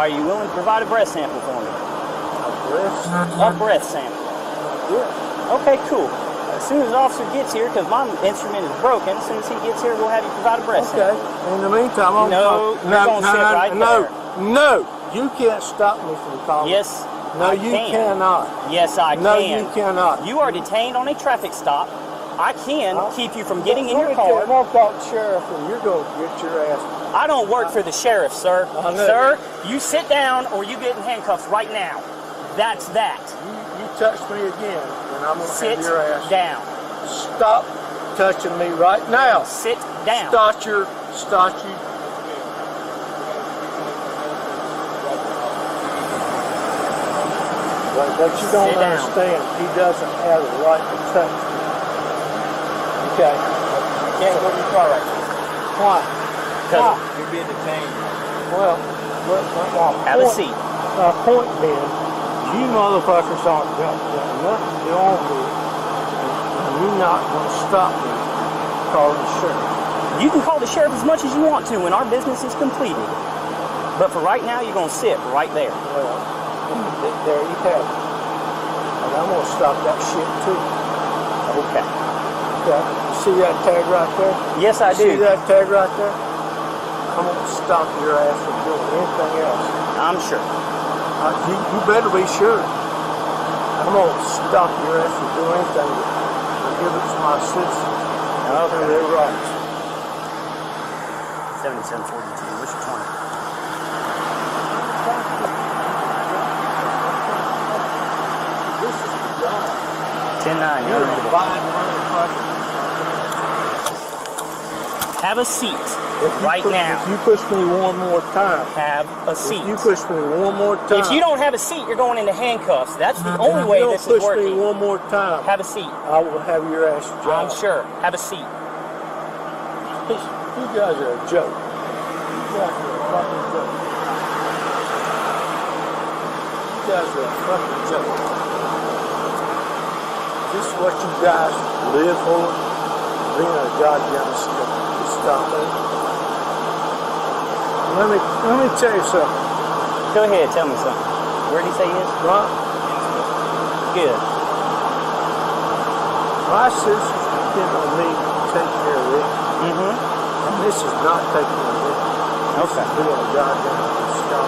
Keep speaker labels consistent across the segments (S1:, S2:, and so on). S1: Are you willing to provide a breath sample for me? A breath sample. Yeah. Okay, cool. As soon as the officer gets here, because my instrument is broken, as soon as he gets here, we'll have you provide a breath
S2: Okay. In the meantime, I'm
S1: No,
S2: gonna-
S1: you're gonna sit right
S2: no, no, you can't stop me from
S1: sample.
S2: calling.
S1: Yes,
S2: No,
S1: I
S2: you
S1: can.
S2: cannot.
S1: Yes, I
S2: No,
S1: can.
S2: you cannot.
S1: You are detained on a traffic stop. I can
S2: Huh?
S1: keep you from getting in
S2: Let
S1: your
S2: me tell you,
S1: car.
S2: if I call sheriff, and you're gonna get your ass.
S1: I don't work for the sheriff, sir.
S2: I know.
S1: Sir, you sit down or you get in handcuffs right now. That's that.
S2: You, you touch me again, and I'm gonna
S1: Sit
S2: have your ass.
S1: down.
S2: Stop touching me right now.
S1: Sit down.
S2: Start your, start you. But, but you don't
S1: Sit down.
S2: understand. He doesn't have the right to touch me. Okay.
S1: You can't go to your car right now.
S2: Why?
S1: 'Cause-
S2: Why?
S3: You're being detained.
S2: Well, what, what, my
S1: Have a
S2: point-
S1: seat.
S2: My point being, you motherfuckers aren't got, got nothing to do with it. And you're not gonna stop me calling the sheriff.
S1: You can call the sheriff as much as you want to when our business is completed. But for right now, you're gonna sit right there.
S2: Well, th- there you have it. And I'm gonna stop that shit too.
S1: Okay.
S2: Okay? You see that tag right there?
S1: Yes, I
S2: you See
S1: do.
S2: that tag right there? I'm gonna stop your ass from doing anything else.
S1: I'm sure.
S2: Uh, you, you better be sure. I'm gonna stop your ass from doing anything that gives my citizens their rights.
S1: 7742. What's your 20?
S2: This is the God.
S1: 109.
S2: You're
S1: You're
S2: a
S1: ready.
S2: divine motherfucker.
S1: Have a seat
S2: If you
S1: right
S2: push-
S1: now.
S2: If you push me one more time,
S1: Have a seat.
S2: if you push me one more time,
S1: If you don't have a seat, you're going into handcuffs. That's the
S2: If
S1: only
S2: you
S1: way
S2: don't
S1: this
S2: push
S1: is working.
S2: me one more time,
S1: Have a seat.
S2: I will have your ass
S1: I'm
S2: dropped.
S1: sure. Have a seat.
S2: You guys are a joke. You guys are a fucking joke. You guys are a fucking joke. This is what you guys live for? Being a goddamn stop. Stop it. Let me let me tell you something.
S1: Go ahead. Tell me something. Where did he say he is?
S2: Right?
S1: Good.
S2: My sisters depend on me to take care of them.
S1: Mm-hmm.
S2: And this is not taking a hit. This
S1: Okay.
S2: is being a goddamn stop.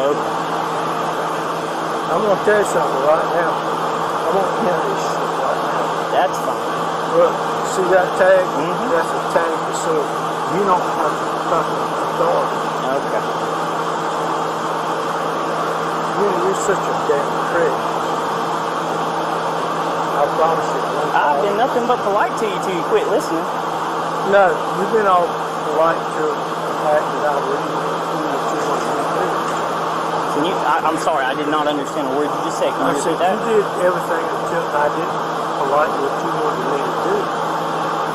S1: Okay.
S2: I'm gonna tell you something right now. I'm gonna end this shit right now.
S1: That's fine.
S2: Look, see that tag?
S1: Mhm.
S2: That's a tag for silver. You don't have the fucking authority.
S1: Okay.
S2: You, you're such a damn prick. I promise you. I'm gonna-
S1: I've been nothing but polite to you till you quit listening.
S2: No, you've been all polite to the fact that I really do what you want me to do.
S1: Can you, I, I'm sorry, I did not understand a word you just said. Can
S2: I
S1: you
S2: said
S1: repeat
S2: you
S1: that?
S2: did everything until I did polite what you wanted me to do.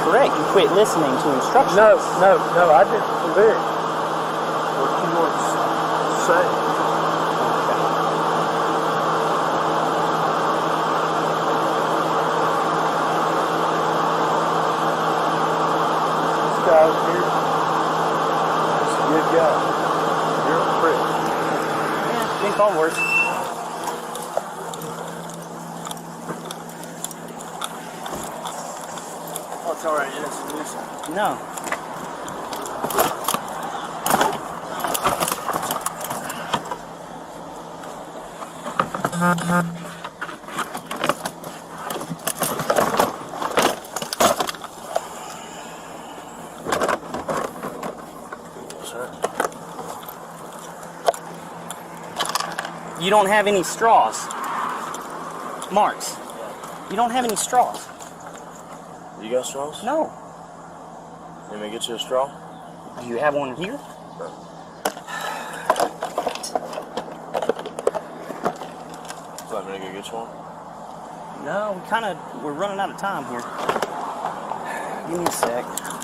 S1: Correct. You quit listening to instructions.
S2: No, no, no, I didn't believe it. What you want to say. This guy over here, he's a good guy. You're a prick.
S1: You can call worse.
S2: Oh, it's all right, it's a nuisance.
S1: No. You don't have any straws. Marks. You don't have any straws.
S3: You got straws?
S1: No.
S3: Let me get you a straw.
S1: Do you have one here?
S3: Let me go get you one.
S1: No, we kind of we're running out of time here. Give me a sec.